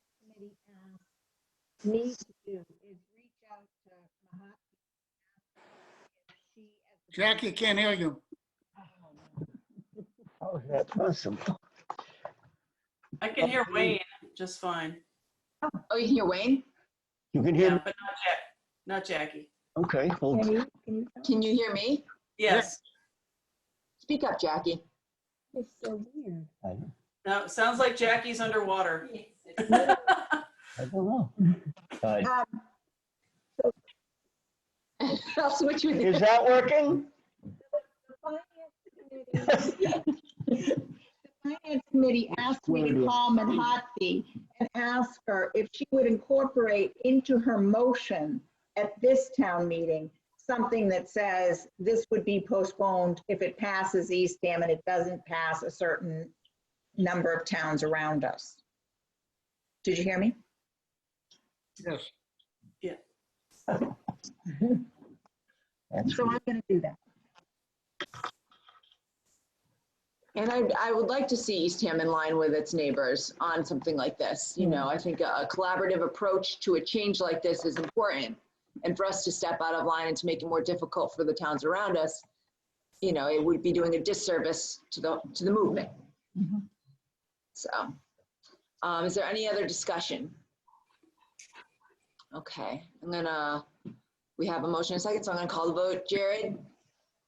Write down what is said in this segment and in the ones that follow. Andy asked me to do is reach out to Mahatma. She as a- Jackie can't hear you. Oh, no. How is that possible? I can hear Wayne just fine. Oh, you can hear Wayne? You can Yeah, hear, me? but not Jack, not Jackie. okay, well, Can you, can you tell? Can you hear me? Yes. Speak up, Jackie. It's so weird. I don't No, it sounds like Jackie's underwater. I don't know. Uh, I'll switch with you. Is that working? The finance committee- the finance committee asked me to call Manhattan and ask her if she would incorporate into her motion at this town meeting, something that says this would be postponed if it passes Eastham and it doesn't pass a certain number of towns around us. Did you hear me? Yes. That's So I'm gonna do that. And I, I would like to see Eastham in line with its neighbors on something like this. You know, I think a collaborative approach to a change like this is important. And for us to step out of line and to make it more difficult for the towns around us, you know, it would be doing a disservice to the, to the movement. Mhm. So, um, is there any other discussion? Okay, I'm gonna, we have a motion and a second, so I'm gonna call the vote. Jared,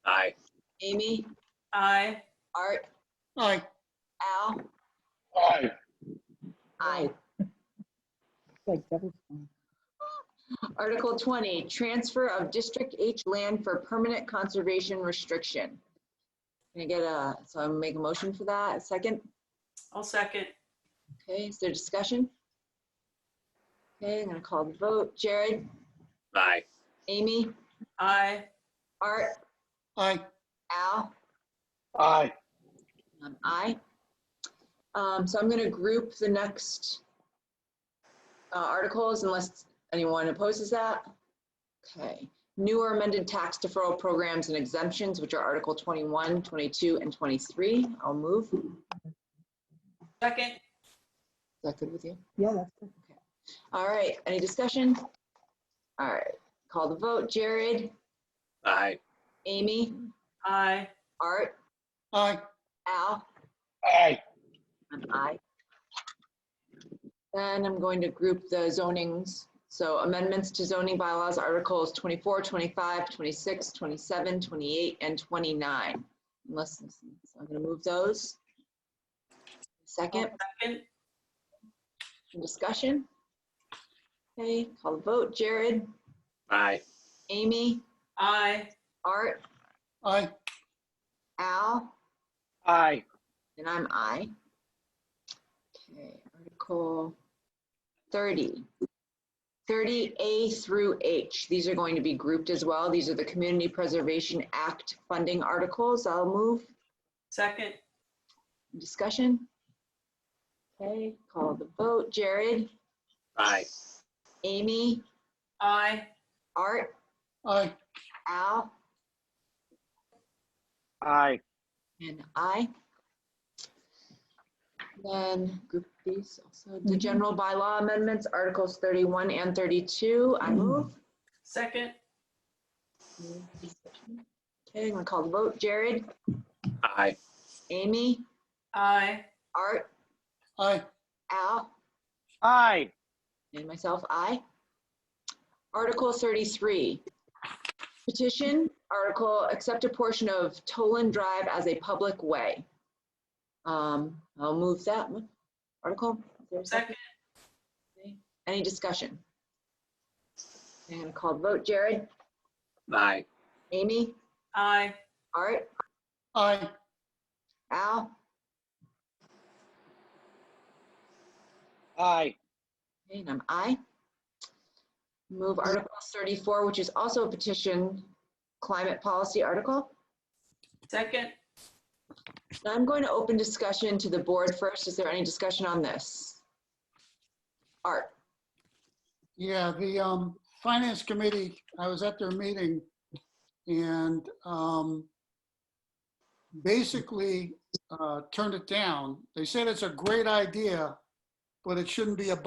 Aye. Amy, Aye. Art, All right, Al, Aye. aye. Like double. Article 20, transfer of District H land for permanent conservation restriction. Can I get a, so I'm make a motion for that, a second? I'll second. Okay, is there discussion? Okay, I'm gonna call the vote. Jared, Aye. Amy, Aye. Art, all right. Al? Aye. Um, Aye. Um, So I'm going to group the next uh, articles unless anyone opposes that. Okay. New or amended tax deferral programs and exemptions, which are Article 21, 22, and 23. I'll move. Is Second. that good with you? Yeah, that's good. All right. Any discussion? All right. Call the vote. Jared, Aye. Amy, Aye. Art, All right, Al? Aye. An aye. Then I'm going to group the zonings. So amendments to zoning bylaws, Articles 24, 25, 26, 27, 28, and 29. Unless, so I'm going to move those. Second, Second. any discussion. Okay, call the vote. Jared, Aye. Amy, Aye. Art, all right. Al, Aye. and I'm I. Okay, Article 30. 30A through H, these are going to be grouped as well. These are the Community Preservation Act funding articles. I'll move. Second. Discussion? Okay, call the vote. Jared, Aye. Amy, Aye. Art, All right, Al, Aye. and I. Then group these also. The Mhm. general bylaw amendments, Articles 31 and 32, I move. Second. Okay, I'm gonna call the vote. Jared, Aye. Amy, Aye. Art, all right. Al, Aye. and myself, I. Article 33. Petition, article, accept a portion of Toland Drive as a public way. Um, I'll move that one. Article. is there a Second. Any discussion? I'm gonna call the vote. Jared, Aye. Amy, Aye. Art, All right, Al, Aye. Okay, And I'm aye. Move Article 34, which is also a petition climate policy article. Second. Now I'm going to open discussion to the board first. Is there any discussion on this? Art, yeah, the um, Finance Committee, I was at their meeting and um, basically uh, turned it down. They said it's a great idea, but it shouldn't be a